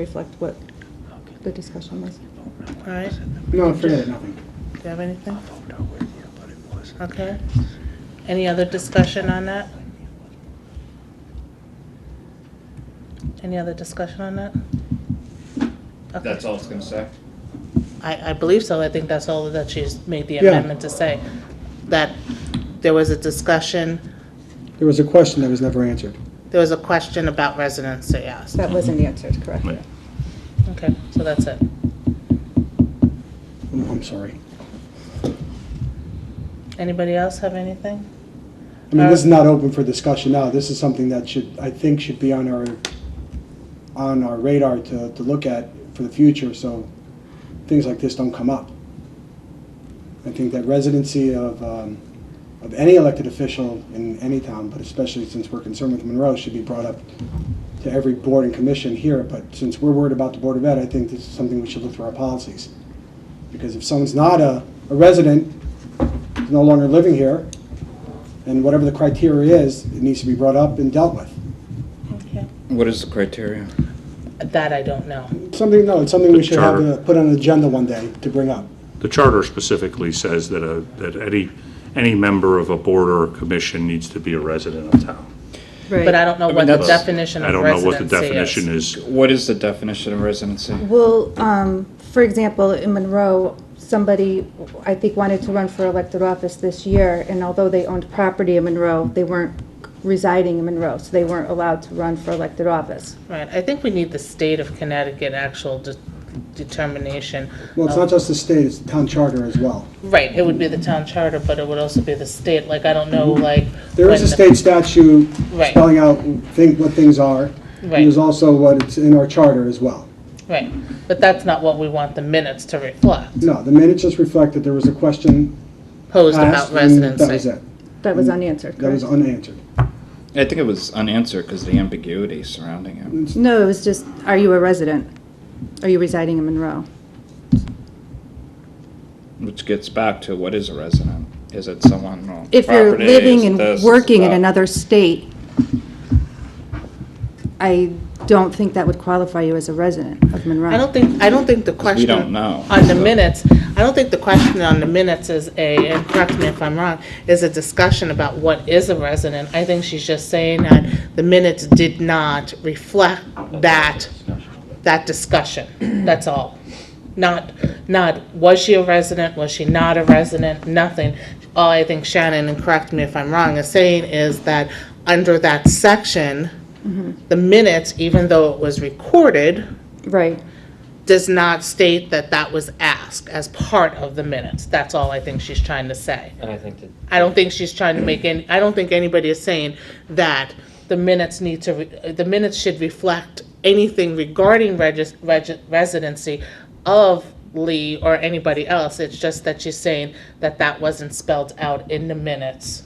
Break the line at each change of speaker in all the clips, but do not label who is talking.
reflect what
Okay.
the discussion was.
Right.
No, forget it, nothing.
Do you have anything?
Vote no with you, but it wasn't.
Okay. Any other discussion on that? Any other discussion on that? Okay.
That's all it's gonna say?
I, I believe so. I think that's all that she's made the
Yeah.
amendment to say. That there was a discussion,
There was a question that was never answered.
there was a question about residency asked.
That wasn't answered correctly.
Okay, so that's it.
I'm I'm sorry.
Anybody else have anything?
I mean, this is not open for discussion now. This is something that should, I think, should be on our, on our radar to, to look at for the future, so things like this don't come up. I think that residency of, um, of any elected official in any town, but especially since we're concerned with Monroe, should be brought up to every board and commission here, but since we're worried about the Board of Ed, I think this is something we should look through our policies. Because if someone's not a, a resident, no longer living here, and whatever the criteria is, it needs to be brought up and dealt with.
Okay.
What is the criteria?
That I don't know.
It's Something, no, it's something we
The
should have
charter.
to put on an agenda one day to bring up.
The charter specifically says that a, that any, any member of a board or a commission needs to be a resident of town.
But I don't know
I mean,
what the
that's-
definition
I
of
don't know what the
residency
definition
is.
is.
What is the definition of residency?
Well, um, for example, in Monroe, somebody, I think, wanted to run for elected office this year, and although they owned property in Monroe, they weren't residing in Monroe, so they weren't allowed to run for elected office.
Right, I think we need the state of Connecticut actual de- determination.
Well, it's
of-
not just the state, it's the town charter as well.
Right, it would be the town charter, but it would also be the state, like, I don't know, like.
Mm-hmm. There is
when
a
the-
state statute
Right.
spelling out think, what things are. and
Right.
There's also what it's in our charter as well.
Right, but that's not what we want the minutes to reflect,
No, the minutes just reflect that there was a question
posed
asked,
about
and that was
residency.
it.
That was unanswered,
Mm. That was
correct?
unanswered.
I think it was unanswered because the ambiguity surrounding it.
No, it was just, are you a resident? Are you residing in Monroe?
Which gets back to what is a resident? Is it someone on
If you're
property? Is
living
it
and
this?
working
Is
in
that?
another state, I don't think that would qualify you as a resident of Monroe.
I don't think, I don't think the question.
we don't know,
On the
so-
minutes, I don't think the question on the minutes is a, and correct me if I'm wrong, is a discussion about what is a resident. I think she's just saying that the minutes did not reflect that, that discussion, that's all. Not, not, was she a resident, was she not a resident, nothing. All I think Shannon, and correct me if I'm wrong, is saying is that under that section, the minutes, even though it was recorded,
Right.
does not state that that was asked as part of the minutes. That's all I think she's trying to say.
And I think that
I don't think she's trying to make any, I don't think anybody is saying that the minutes need to, re- uh, the minutes should reflect anything regarding regis, regi- residency of Lee or anybody else. It's just that she's saying that that wasn't spelled out in the minutes.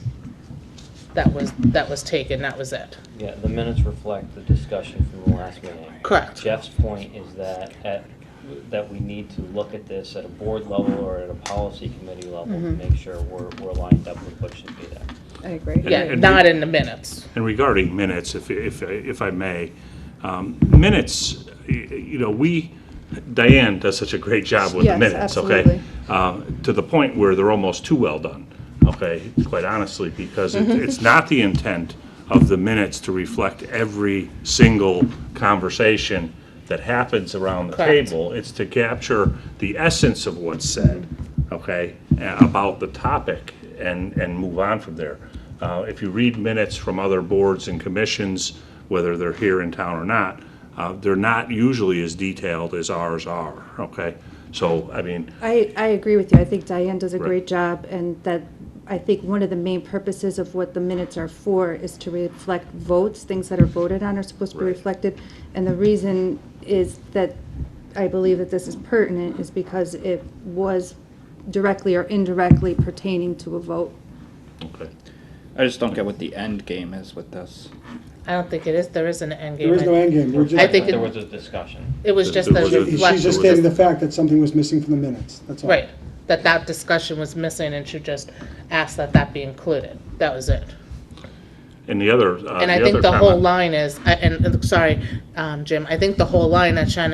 That was, that was taken, that was it.
Yeah, the minutes reflect the discussion from the last meeting.
Correct.
Jeff's point is that, at, that we need to look at this at a board level or at a policy committee level to
Mm-hmm.
make sure we're, we're lined up with what should be there.
I agree.
Yeah,
and we-
not in the minutes.
And regarding minutes, if, if, if I may, um, minutes, y- you know, we, Diane does such a great job with
Yes,
the minutes, okay?
absolutely.
Uh, To the point where they're almost too well done, okay, quite honestly, because it- it's not the intent of the minutes to reflect every single conversation that happens around the
Correct.
table. It's to capture the essence of what's said, okay, a- about the topic and, and move on from there. Uh, If you read minutes from other boards and commissions, whether they're here in town or not, uh, they're not usually as detailed as ours are, okay? So, I mean,
I, I agree with you. I think Diane does a
Right.
great job, and that, I think one of the main purposes of what the minutes are for is to reflect votes, things that are voted on are supposed to be
Right.
reflected. And the reason is that I believe that this is pertinent is because it was directly or indirectly pertaining to a vote.
okay.
I just don't get what the end game is with this.
I don't think it is, there is an end game.
There is no end game. We're
I
just,
think it-
There was a discussion.
It was just
There
that
was a-
it
she- she's just
reflected,
stating the fact that something was missing from the minutes, that's all.
right, that that discussion was missing and she just asked that that be included. That was it.
And the other, uh, the other
And I think the
comment-
whole line is, I- and, and, sorry, um, Jim, I think the whole line that Shannon